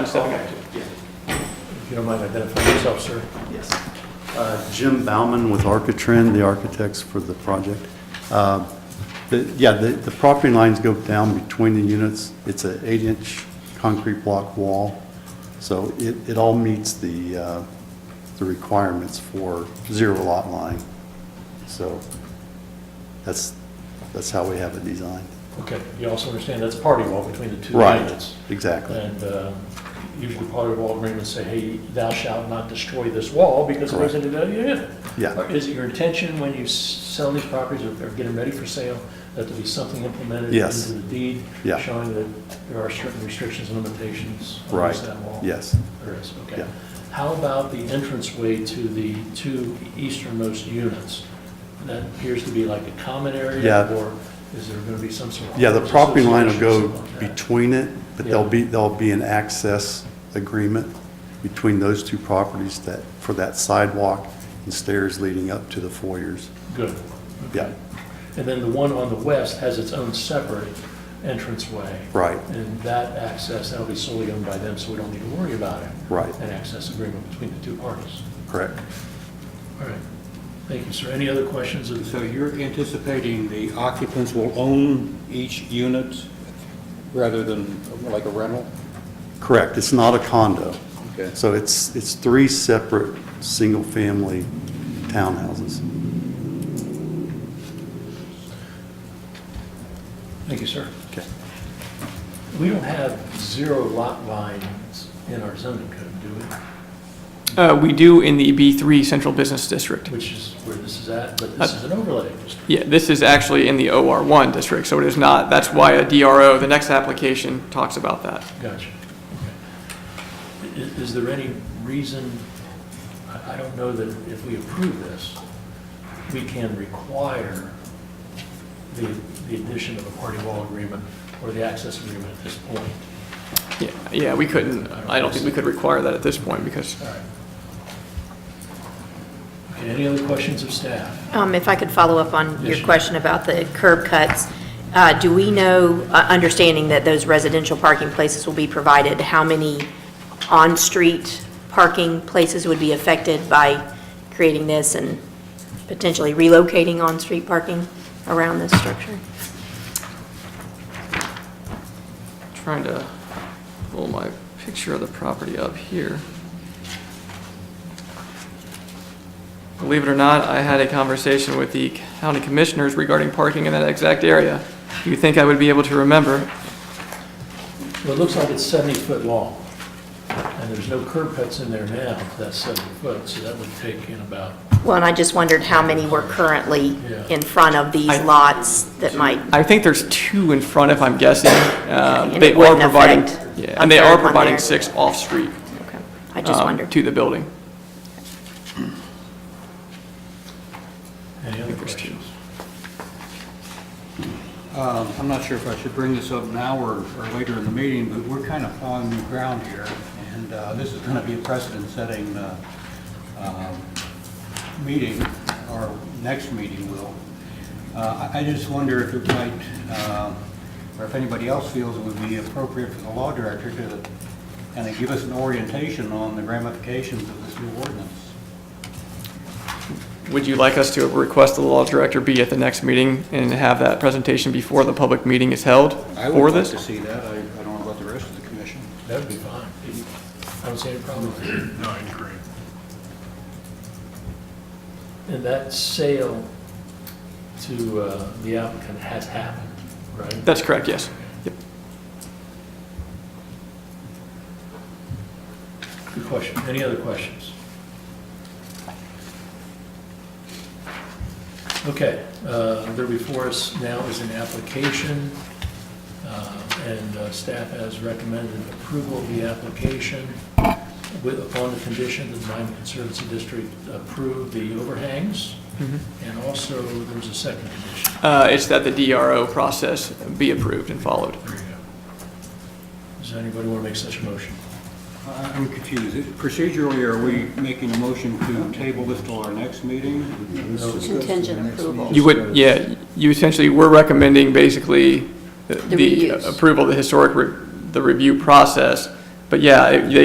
Stepping up to, yeah. If you don't mind identifying yourself, sir. Yes. Uh, Jim Bauman with Architrend, the architects for the project. Uh, the- Yeah, the the property lines go down between the units. It's an eight-inch concrete block wall, so it it all meets the uh, the requirements for zero lot line. So that's, that's how we have it designed. Okay, you also understand that's party wall between the two Right. units. Exactly. And uh, usually party wall agreements say, hey, thou shalt not destroy this wall because it goes Correct. into the unit. Yeah. Or Is it your intention when you s- sell these properties or or get them ready for sale, that there be something implemented Yes. into the deed? Yeah. Showing that there are certain restrictions and limitations on Right. this that wall? Yes. There is, okay. Yeah. How about the entranceway to the two easternmost units? That appears to be like a common area, Yeah. or is there going to be some sort of... Yeah, the property line will go association, something like that? between it, but there'll Yeah. be, there'll be an access agreement between those two properties that, for that sidewalk and stairs leading up to the foyers. Good. Yeah, And then the one on the west has its own separate entranceway. right, And that access, that'll be solely owned by them, so we don't need to worry about it. Right. An access agreement between the two parties. correct. All right. Thank you, sir. Any other questions? of the- So you're anticipating the occupants will own each unit rather than like a rental? Correct, it's not a condo. Okay. So it's, it's three separate, single-family townhouses. Thank you, sir. Okay. We don't have zero lot lines in our zoning code, do we? Uh, We do in the B3 Central Business District. Which is where this is at, but this is an overlay district. Yeah, this is actually in the OR1 district, so it is not, that's why a DRO, the next application, talks about that. Gotcha. Okay. Is, is there any reason, I, I don't know that if we approve this, we can require the, the addition of a party wall agreement or the access agreement at this point? Yeah, Yeah, we couldn't, I don't think we could require that at this point because All right. Okay, any other questions of staff? Um, If I could follow up on Yes, your sure. question about the curb cuts, uh, do we know, uh, understanding that those residential parking places will be provided, how many on-street parking places would be affected by creating this and potentially relocating on-street parking around this structure? trying to pull my picture of the property up here. Believe it or not, I had a conversation with the county commissioners regarding parking in that exact area. You'd think I would be able to remember. Well, it looks like it's 70 foot long, and there's no curb cuts in there now, if that's 70 foot, so that would take in about, Well, and I just wondered how many were currently Yeah. in front of these I- lots that might, I think there's two in front, if I'm guessing. Uh, And it They are wouldn't providing, affect yeah, a and they third are one providing there. six off-street. Okay. I just um, wondered. To the building. any other there's two. questions? Um, I'm not sure if I should bring this up now or, or later in the meeting, but we're kind of plowing new ground here, and uh, this is going to be a precedent-setting uh, um, meeting, our next meeting will. Uh, I I just wonder if it might, uh, or if anybody else feels it would be appropriate for the law director to kind of give us an orientation on the ramifications of this new ordinance. Would you like us to request the law director be at the next meeting and have that presentation before the public meeting is held I for would like to this? see that. I I don't know about the rest of the commission. That would be fine. I don't see any problem with it. No, I agree. And that sale to uh, the applicant has happened, right? That's correct, yes. Yep. Good question. Any other questions? Okay, uh, there before us now is an application, uh, and uh, staff has recommended approval of the application with, upon the condition that the Miami Conservancy District approve the overhangs, and also there's a second condition. Uh, It's that the DRO process be approved and followed. There you go. Does anybody want to make such a motion? I- I'm confused. Procedurally, are we making a motion to table this till our next meeting? Contingent approval. You would, yeah, you essentially, we're recommending basically the- The the reuse. approval, of the historic, re- the review process But yeah, it- they